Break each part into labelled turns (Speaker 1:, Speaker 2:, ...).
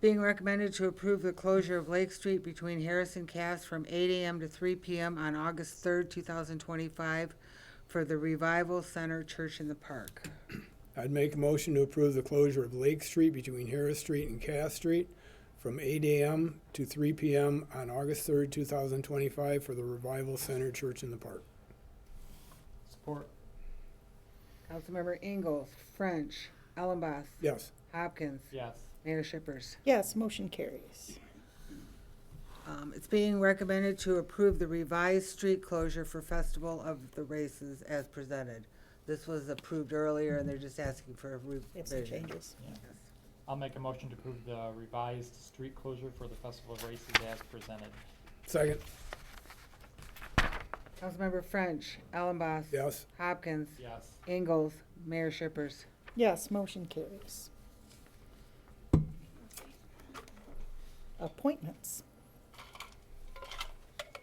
Speaker 1: Being recommended to approve the closure of Lake Street between Harris and Cass from eight AM to three PM on August third, two thousand twenty-five for the Revival Center Church in the Park.
Speaker 2: I'd make a motion to approve the closure of Lake Street between Harris Street and Cass Street from eight AM to three PM on August third, two thousand twenty-five for the Revival Center Church in the Park.
Speaker 3: Support.
Speaker 1: Councilmember Ingalls, French, Ellenboss,
Speaker 2: Yes.
Speaker 1: Hopkins,
Speaker 3: Yes.
Speaker 1: Mayor Shippers.
Speaker 4: Yes, motion carries.
Speaker 1: Um, it's being recommended to approve the revised street closure for Festival of the Races as presented. This was approved earlier and they're just asking for a
Speaker 4: We have some
Speaker 1: revision.
Speaker 4: changes.
Speaker 3: I'll make a motion to approve the revised street closure for the Festival of Races as presented.
Speaker 2: Second,
Speaker 1: Councilmember French, Ellenboss,
Speaker 2: yes.
Speaker 1: Hopkins,
Speaker 3: Yes.
Speaker 1: Ingalls, Mayor Shippers.
Speaker 4: Yes, motion carries. Appointments.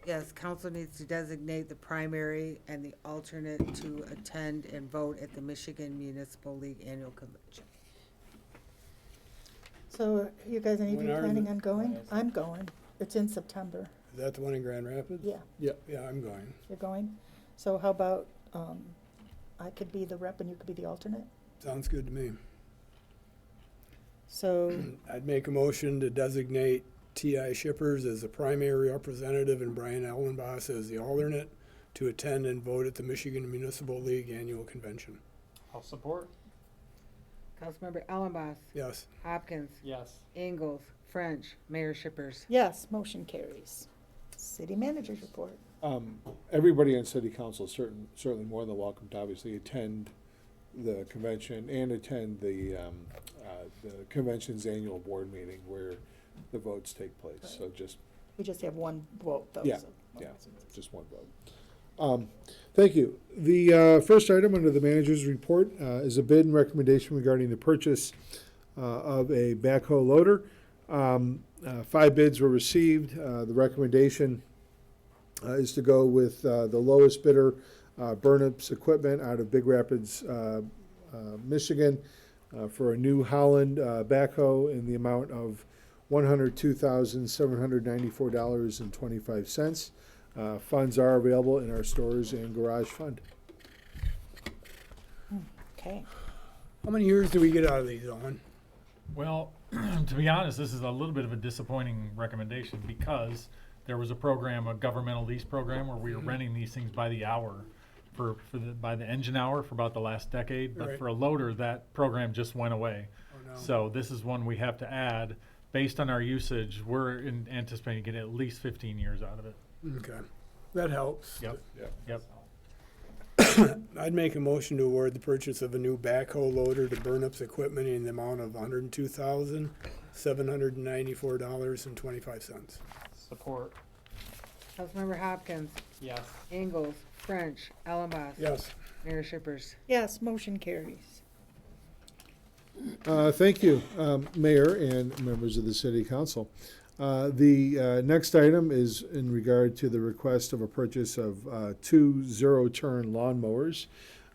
Speaker 1: Yes, council needs to designate the primary and the alternate to attend and vote at the Michigan Municipal League Annual Convention.
Speaker 4: So you guys, any of you
Speaker 2: When are
Speaker 4: planning
Speaker 2: the-
Speaker 4: on going?
Speaker 3: Yes.
Speaker 4: I'm going. It's in September.
Speaker 2: Is that the one in Grand Rapids?
Speaker 4: Yeah,
Speaker 2: Yeah, yeah, I'm going.
Speaker 4: you're going. So how about, um, I could be the rep and you could be the alternate?
Speaker 2: Sounds good to me.
Speaker 4: So,
Speaker 2: I'd make a motion to designate T.I. Shippers as the primary representative and Brian Allenboss as the alternate to attend and vote at the Michigan Municipal League Annual Convention.
Speaker 3: I'll support.
Speaker 1: Councilmember Ellenboss,
Speaker 2: Yes.
Speaker 1: Hopkins,
Speaker 3: Yes.
Speaker 1: Ingalls, French, Mayor Shippers.
Speaker 4: yes, motion carries. City managers report.
Speaker 5: um, everybody on city council is certain, certainly more than welcome to obviously attend the convention and attend the, um, uh, the convention's annual board meeting where the votes take place. So just
Speaker 4: We just have one vote though.
Speaker 5: Yeah,
Speaker 4: so-
Speaker 5: yeah, just one vote. Um, thank you. The, uh, first item under the manager's report, uh, is a bid and recommendation regarding the purchase, uh, of a backhoe loader. Um, uh, five bids were received. Uh, the recommendation, uh, is to go with, uh, the lowest bidder, uh, Burnups Equipment out of Big Rapids, uh, uh, Michigan, uh, for a New Holland, uh, backhoe in the amount of one hundred two thousand seven hundred ninety-four dollars and twenty-five cents. Uh, funds are available in our stores and garage fund.
Speaker 4: Okay,
Speaker 2: How many years do we get out of these, Owen?
Speaker 6: Well, to be honest, this is a little bit of a disappointing recommendation because there was a program, a governmental lease program, where we were
Speaker 2: Mm-hmm.
Speaker 6: renting these things by the hour for, for the, by the engine hour for about the last decade.
Speaker 2: Right.
Speaker 6: But for a loader, that program just went away.
Speaker 2: no.
Speaker 6: So this is one we have to add. Based on our usage, we're in- anticipating getting at least fifteen years out of it.
Speaker 2: Okay, that helps.
Speaker 6: Yep, yep.
Speaker 2: I'd make a motion to award the purchase of a new backhoe loader to Burnups Equipment in the amount of hundred and two thousand, seven hundred and ninety-four dollars and twenty-five cents.
Speaker 3: Support.
Speaker 1: Councilmember Hopkins,
Speaker 3: Yes.
Speaker 1: Ingalls, French, Ellenboss.
Speaker 2: Yes.
Speaker 1: Mayor Shippers.
Speaker 4: yes, motion carries.
Speaker 5: Uh, thank you, um, Mayor and members of the City Council. Uh, the uh, next item is in regard to the request of a purchase of uh, two zero-turn lawnmowers.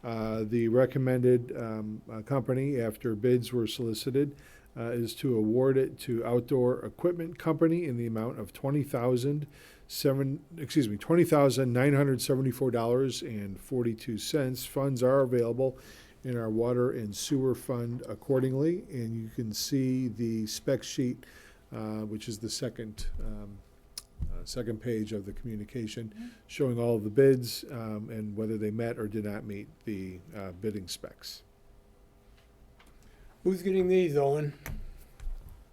Speaker 5: Uh, the recommended um, uh, company, after bids were solicited, uh, is to award it to Outdoor Equipment Company in the amount of twenty thousand seven, excuse me, twenty thousand nine hundred seventy-four dollars and forty-two cents. Funds are available in our water and sewer fund accordingly. And you can see the spec sheet, uh, which is the second, um, uh, second page of the communication, showing all of the bids um, and whether they met or did not meet the uh, bidding specs.
Speaker 2: Who's getting these, Owen?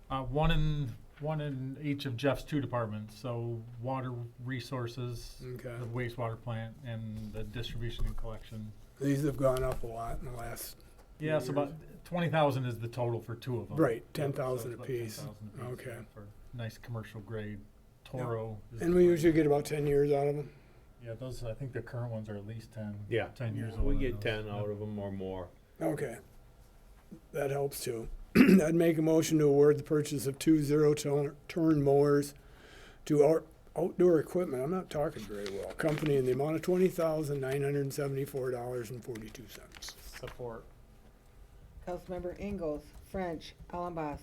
Speaker 6: Uh, one in, one in each of Jeff's two departments, so water resources,
Speaker 2: Okay,
Speaker 6: the wastewater plant, and the distribution and collection.
Speaker 2: these have gone up a lot in the last,
Speaker 6: Yeah, so about twenty thousand is the total for two of them.
Speaker 2: right, ten
Speaker 6: Yep, so it's
Speaker 2: thousand
Speaker 6: about
Speaker 2: apiece.
Speaker 6: 10,000 apiece,
Speaker 2: Okay.
Speaker 6: yeah, for Nice commercial grade Toro. is
Speaker 2: And
Speaker 6: the
Speaker 2: we
Speaker 6: brand.
Speaker 2: usually get about ten years out of them.
Speaker 6: Yeah, those, I think the current ones are at least ten.
Speaker 7: Yeah.
Speaker 6: Ten years old.
Speaker 7: We
Speaker 6: in
Speaker 7: get
Speaker 6: those.
Speaker 7: ten out
Speaker 6: Yep.
Speaker 7: of them or more.
Speaker 2: Okay. That helps too. I'd make a motion to award the purchase of two zero-turn mowers to our outdoor equipment, I'm not talking very well, company in the amount of twenty thousand nine hundred and seventy-four dollars and forty-two cents.
Speaker 3: Support.
Speaker 1: Councilmember Ingalls, French, Ellenboss,